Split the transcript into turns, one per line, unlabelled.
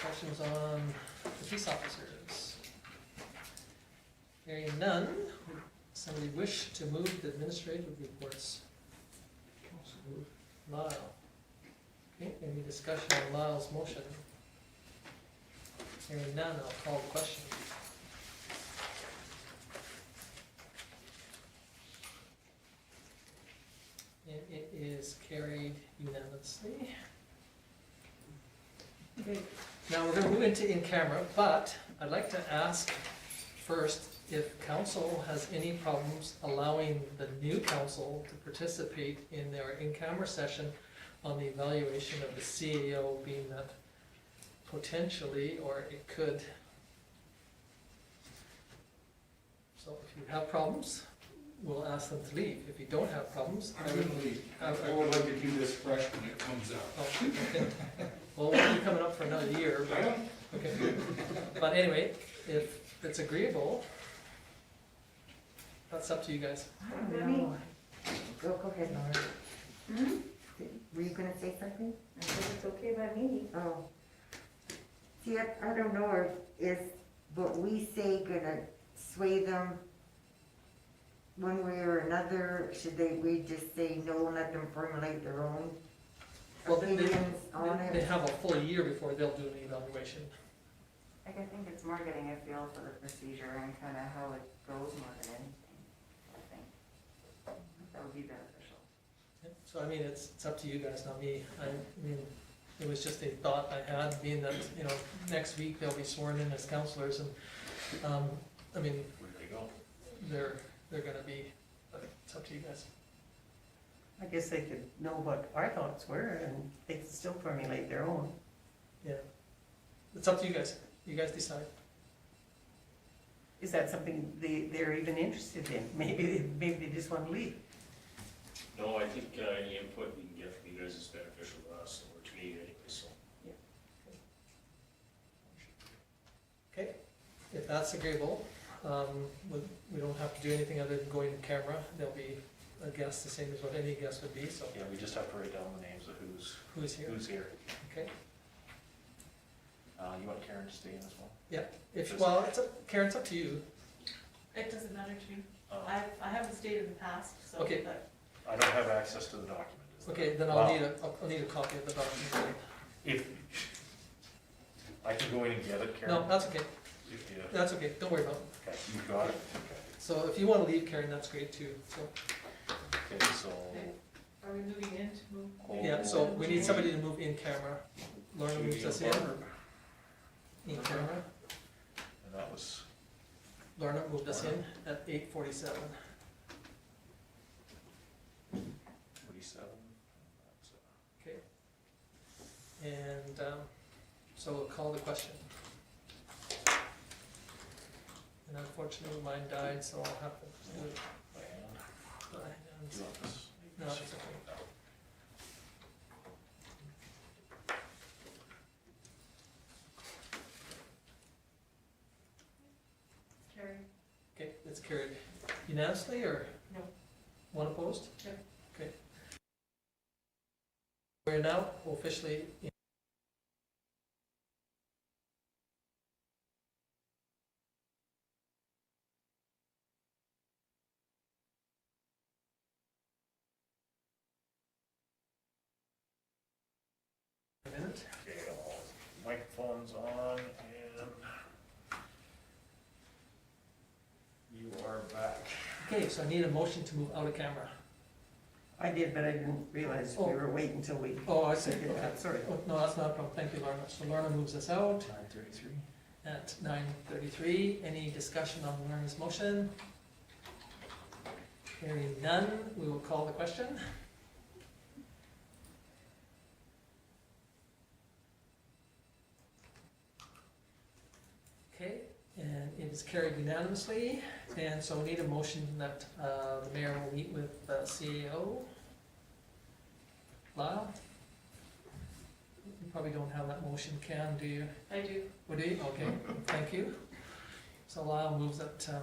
questions on the police officers? Hearing none, would somebody wish to move the administrative reports? Lyle. Okay, any discussion on Lyle's motion? Hearing none, I'll call the question. And it is carried unanimously. Okay, now we're gonna move into in camera, but I'd like to ask first if council has any problems allowing the new council to participate in their in-camera session on the evaluation of the CAO being that potentially, or it could. So if you have problems, we'll ask them to leave. If you don't have problems,
I'm
I
gonna
would
leave. I I would like to do this fresh when it comes out.
Oh, okay. Well, we'll be coming up for another year,
I
but,
don't,
okay. But anyway, if it's agreeable, that's up to you guys.
I don't know. Go, go ahead, Laura. Were you gonna say something?
I said Hmm? it's okay by me.
Oh. See, I, I don't know if, is what we say gonna sway them one way or another? Should they, we just say no, let them formulate their own
Well, they- they-
opinions on
They
it?
have a full year before they'll do an evaluation.
Like, I think it's more getting a feel for the procedure and kind of how it goes more than anything, I think. That would be beneficial.
Yep, So I mean, it's, it's up to you guys, not me. I mean, it was just a thought I had, being that, you know, next week they'll be sworn in as counselors and, um, I mean,
where they go?
they're, they're gonna be, but it's up to you guys.
I guess they could know what our thoughts were and they could still formulate their own.
Yeah. It's up to you guys. You guys decide.
Is that something they, they're even interested in? Maybe, maybe they just want to leave.
No, I think uh, any input we can get from you guys is beneficial to us, or to me anyway, so.
Okay, if that's agreeable, um, we, we don't have to do anything other than going to camera. There'll be a guest, the same as what any guest would be, so
Yeah, we just have to write down the names of who's,
who's here,
who's here.
okay?
Uh, you want Karen to stay in as well?
If, well, it's, up- Karen, it's up to you.
It doesn't matter to me.
Uh,
I, I haven't stayed in the past, so.
Okay.
but
I don't have access to the document. is that-
Okay, then I'll need a, I'll- I'll need a copy of the document.
If, I can go in and get it, Karen?
No, that's okay,
If you,
that's okay, don't worry about it.
okay, you got it? Okay.
So if you wanna leave, Karen, that's great too, so,
Okay, so.
Are we moving in to move?
yeah, so we need somebody to move in camera. Lorna
Should we
moves us
do
in,
a
in camera.
And that was,
Lorna moved us in at eight forty-seven.
forty-seven.
Okay. And, um, so we'll call the question. And unfortunately, mine died, so I'll have to do it
By hand,
by hand.
you want this?
No, it's okay.
Carrie?
Okay, it's carried unanimously, or?
No.
One opposed?
No.
Okay. We're now officially in a minute.
Okay, all microphones on and you are back.
Okay, so I need a motion to move out of camera.
I did, but I didn't realize we were waiting until we
Oh, I see,
did
okay.
that, sorry.
Oh, No, that's not a problem, thank you, Lorna. So Lorna moves us out.
Nine thirty-three.
at nine thirty-three. Any discussion on Warren's motion? Hearing none, we will call the question. Okay, and it is carried unanimously, and so we need a motion that uh, the mayor will meet with the CAO. Lyle? You probably don't have that motion, Ken, do you?
I do.
Would he? Okay, thank you. So Lyle moves that um,